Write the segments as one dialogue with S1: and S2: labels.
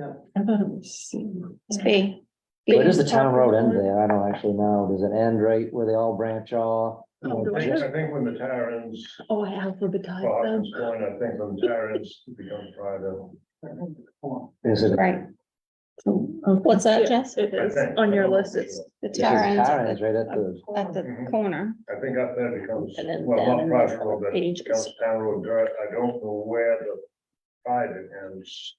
S1: I thought it was. C.
S2: It's B.
S3: Where does the town road end there? I don't actually know. Does it end right where they all branch off?
S1: Oh,
S4: I
S1: the
S4: think,
S1: way-
S4: I think when the tower ends,
S1: Oh, I alphabetized
S4: for
S1: them.
S4: Hawkins Point, I think when the tower ends, it becomes private.
S3: Is it?
S2: Right,
S1: Oh, Okay.
S2: What's that, Jess?
S1: It
S4: I
S1: is,
S4: think.
S1: on your list, it's.
S2: the
S3: Because
S2: tower ends
S3: Tara
S2: at
S3: is right at the,
S2: the, at the corner.
S4: I think up there becomes,
S2: And then
S4: well,
S2: down
S4: not
S2: in
S4: private
S2: the
S4: road, but it
S2: pages.
S4: becomes town road dirt. I don't know where the private ends.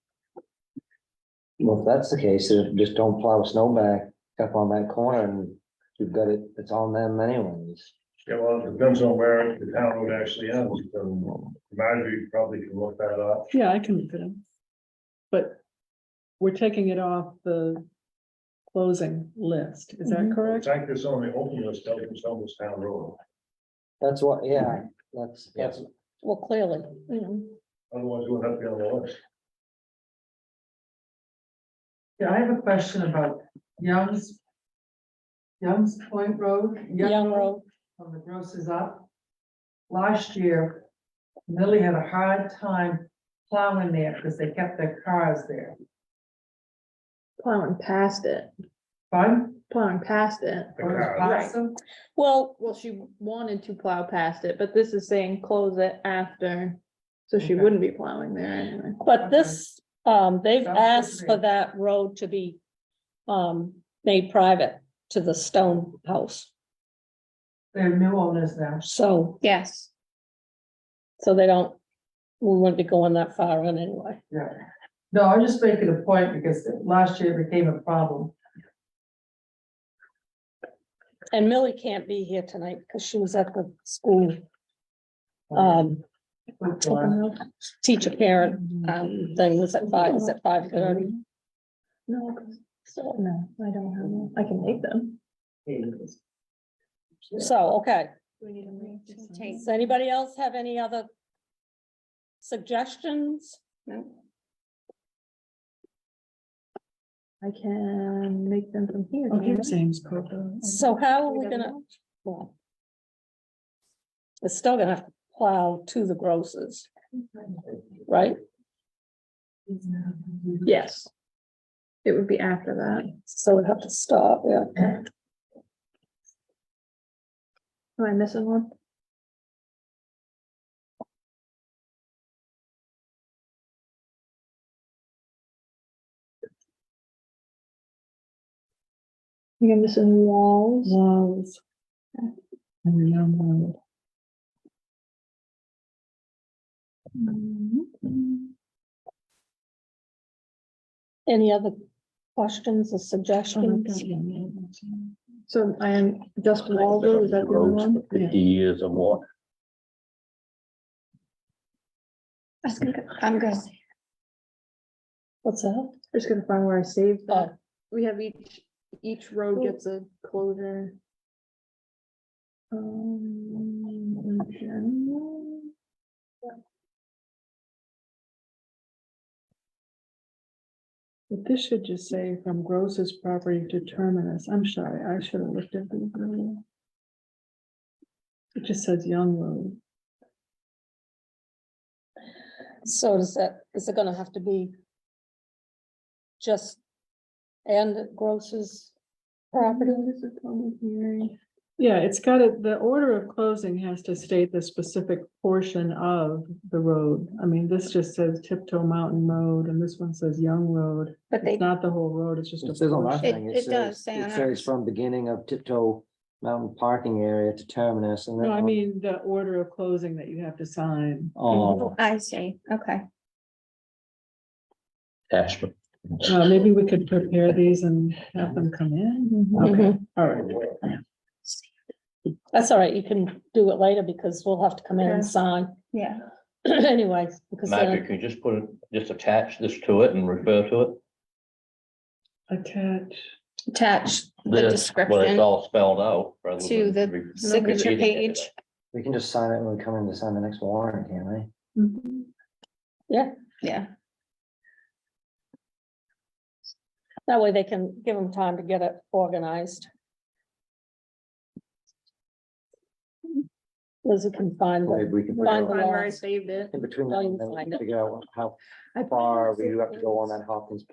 S3: well, if that's the case, then just don't plow snow back up on that corner and you've got it, it's on them anyways.
S4: Yeah, well, it depends on where the town road actually ends, and Marjorie probably can look that up.
S1: Yeah, I can look it up. But we're taking it off the closing list, is that
S2: Mhm.
S4: In
S1: correct?
S4: fact, it's on the open list, doesn't show this town road.
S3: That's what, yeah, that's, that's,
S2: Well, clearly, you know,
S4: Otherwise, it would have to be on the list.
S5: Yeah, I have a question about Young's. Young's Point Road.
S2: Young Road,
S5: From the grosses up. Last year, Millie had a hard time plowing there because they kept their cars there.
S1: Plowing past it,
S5: Fun?
S1: plowing past it.
S4: The cars.
S2: well,
S1: Well, she wanted to plow past it, but this is saying close it after, so she
S5: Okay.
S1: wouldn't be plowing there anyway.
S2: but
S5: Okay.
S2: this, um, they've
S5: Sounds good to
S2: asked for
S5: me.
S2: that road to be. Um, made private to the stone house,
S5: They're new owners now.
S2: so. Yes. So they don't, we wouldn't be going that far in anyway.
S5: Yeah. No, I'm just making a point because last year it became a problem.
S2: And Millie can't be here tonight because she was at the school, um,
S5: Quick one.
S2: teacher parent, um, thing was at five, was at five thirty.
S1: No, 'cause- so, no, I don't have, one. I can make them.
S2: So, okay,
S1: We need
S2: Does anybody else have any other suggestions?
S1: I can make them from here.
S6: Okay,
S1: can't I?
S6: James Coco.
S2: So how are we gonna? well, It's still gonna have to plow to the grosses, right?
S1: Yes. It would be after that.
S2: So we have to stop, yeah.
S1: Am I missing one? You're missing walls.
S6: Walls. And Young Road.
S2: Any other questions or suggestions?
S1: So I am just Waldo, is that the other one?
S6: Fifty
S7: years or more.
S2: I'm good. What's that?
S1: Just gonna find where I saved
S2: Oh,
S1: that. We have each, each road gets a closure. Um, in general.
S6: But this should just say from Gross's property to terminus. I'm sorry, I should have looked at the. earlier. It just says Young Road.
S2: So is that, is it gonna have to be just and Gross's property?
S6: Notice of public hearing. Yeah, it's got it, the order of closing has to state the specific portion of the road. I mean, this just says Tiptoe Mountain Road and this one says Young Road.
S2: But
S6: It's not the whole road, it's just
S3: it
S6: a
S3: says on our
S6: portion.
S2: It-
S3: thing,
S2: it
S3: it says,
S2: does say on
S3: it says
S2: ours.
S3: from beginning of tiptoe mountain parking area to terminus and then.
S6: No, I
S3: on-
S6: mean, the order of closing that you have to sign.
S3: Oh,
S2: I see, okay.
S7: Ashman.
S6: Uh, maybe we could prepare these and have them come in.
S3: Mm-hmm.
S6: Okay, all right.
S2: That's all right, you can do it later because we'll have to come in
S1: Okay.
S2: and sign
S1: Yeah.
S2: anyways. because then-
S7: Marjorie, can you just put, it, just attach this to it and refer to it?
S6: Attach.
S2: Attach
S7: This, when
S2: description
S7: It's all spelled out. rather
S2: to
S7: than
S2: the
S7: re-
S2: signature
S7: repeating it.
S2: page.
S3: we can just sign it when we come in to sign the next warrant, can't we?
S1: Mm-hmm.
S6: Mhm.
S2: Yeah. That way they can give them time to get it organized. Lizzie can find
S3: Or
S2: the,
S3: Maybe we can
S2: Find
S3: figure
S2: the
S3: out-
S1: Find where I
S2: walls.
S1: saved it.
S3: in between
S2: Oh, you
S3: that, and then we
S2: find
S3: can
S2: it.
S3: figure out how
S1: I
S3: far
S1: probably
S3: we have to
S1: saved
S3: go on
S1: it.
S3: that Hawkins